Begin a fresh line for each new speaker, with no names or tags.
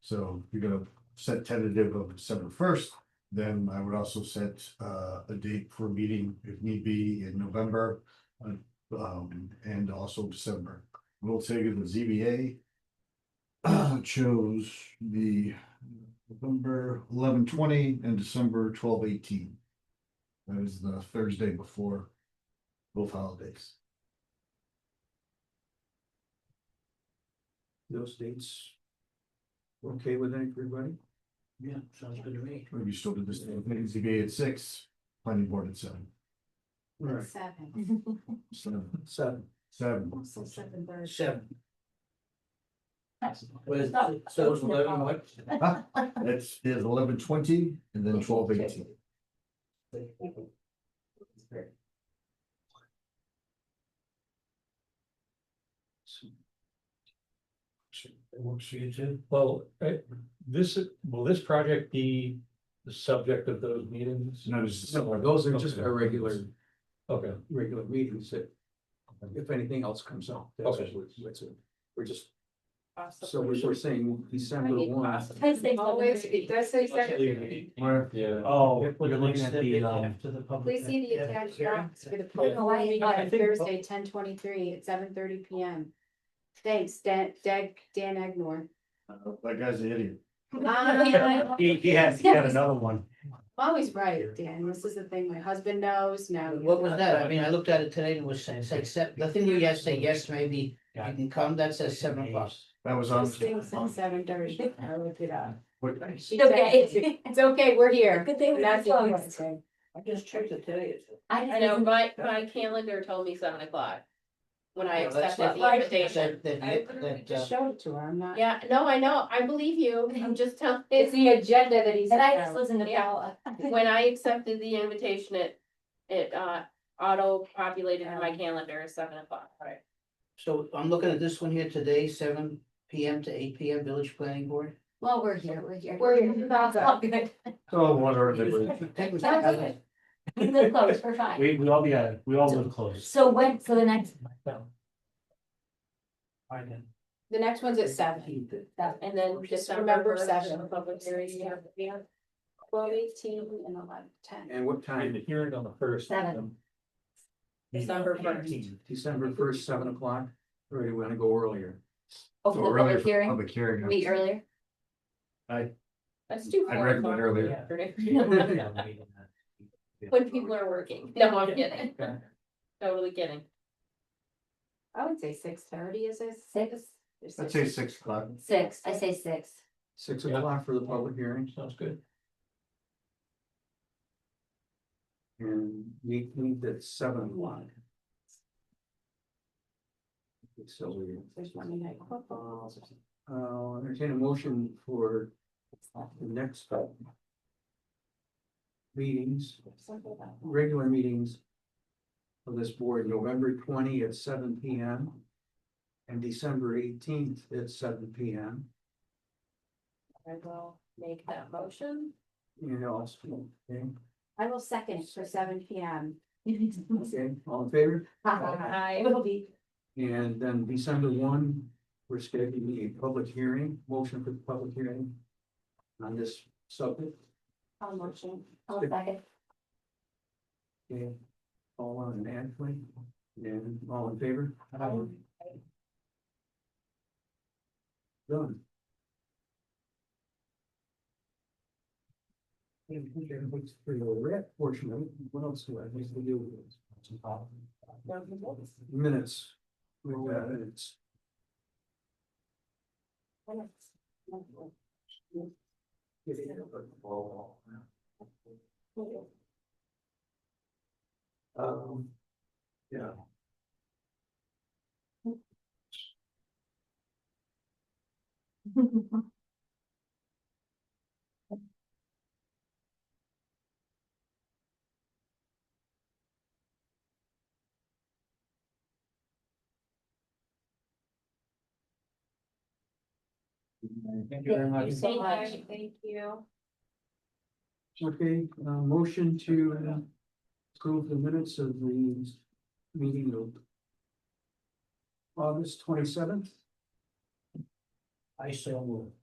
So if you're gonna set tentative of December first, then I would also set uh a date for a meeting if need be in November. uh, Um, and also December. We'll take it to ZBA. uh, Chose the November eleven twenty and December twelve eighteen. That is the Thursday before both holidays.
those dates. Okay with everybody?
Yeah, sounds good to me.
Maybe still did this, ZBA at six, planning board at seven,
Right,
Seven,
seven,
seven,
seven.
so seven thirty.
Seven. Was, so it's eleven what?
That's is eleven twenty and then twelve eighteen.
It works for you too?
Well, eh, this, will this project be the subject of those meetings?
No, this is-
No, those are just our regular,
Okay,
regular meetings that. If anything else comes up, that's what we're, that's it. we're just, so we're, we're saying December one.
Because they always, that's what exactly,
Where?
yeah.
Oh,
You're looking at the, um,
After the public.
please see the
yeah,
attached
hearing.
docs for the
Yeah.
political meeting
I
on
think-
Thursday, ten twenty-three at seven thirty P M. Thanks, Dan, Dan, Dan Agnor. Um,
Uh, That guy's an idiot.
I'm
He, he has, he got another one.
Always right, Dan, this is the thing my husband knows now. you
What was
know.
that? I mean, I looked at it today and was saying, say, except, the thing where you guys say, yes, maybe, you can come, that says seven o'clock.
That was on.
This thing's at seven thirty, I looked it up.
What-
She said, It's it's okay, we're here.
Good thing we
That's what I'm
closed.
saying.
I just checked it today.
I know, my, my calendar told me seven o'clock. When I accepted the invitation.
I literally
uh,
just showed it to her, I'm not.
Yeah, no, I know, I believe you, I'm just telling.
It's the agenda that he's.
And I just
listen
to
Paula.
When I accepted the invitation, it, it, uh, auto-populated in my calendar as seven o'clock. Right.
So I'm looking at this one here today, seven P M to eight P M, village planning board.
Well, we're here, we're here. We're here. That's all good.
Oh, what are they?
Technically,
We live close, we're fine.
We, we all be, uh, we all live close.
So when, so the next, the next one's at seven.
And then
Just
just
remember
remember
seven.
seven public hearing, you have, you have
Twelve eighteen and eleven ten.
And what
And the
time?
hearing on the first.
Seven.
December first.
December first, seven o'clock, or you wanna go earlier?
oh,
So earlier for public hearing.
Meet earlier.
Let's do
I
four
read
o'clock
that
in the
earlier.
afternoon. When people are working, no, I'm kidding, totally kidding.
I would say six thirty is it? Six.
I'd say six o'clock.
Six, I say six.
Six
Yeah.
o'clock for the public hearing
Sounds good.
and we need at seven o'clock. So we,
There's Monday night football.
uh, entertain a motion for the next. Meetings.
Something about-
regular meetings of this board, November twenty at seven P M. And December eighteenth at seven P M.
I will make that motion.
You know, also, okay,
Uh,
I will second for seven P M.
okay, all in favor?
Aye.
It'll be.
And then December one, we're scheduling a public hearing, motion for the public hearing on this subject.
I'll motion. I'll second.
Okay, all on an ad plan, and all in favor? Done. What's for your red portion of it, what else do I need to do with this? Minutes. We've got minutes. Um, yeah.
Thank you very much.
so much.
Thank you.
Okay, uh, motion to uh, approve the minutes of the meeting of August twenty-seventh.
I so move.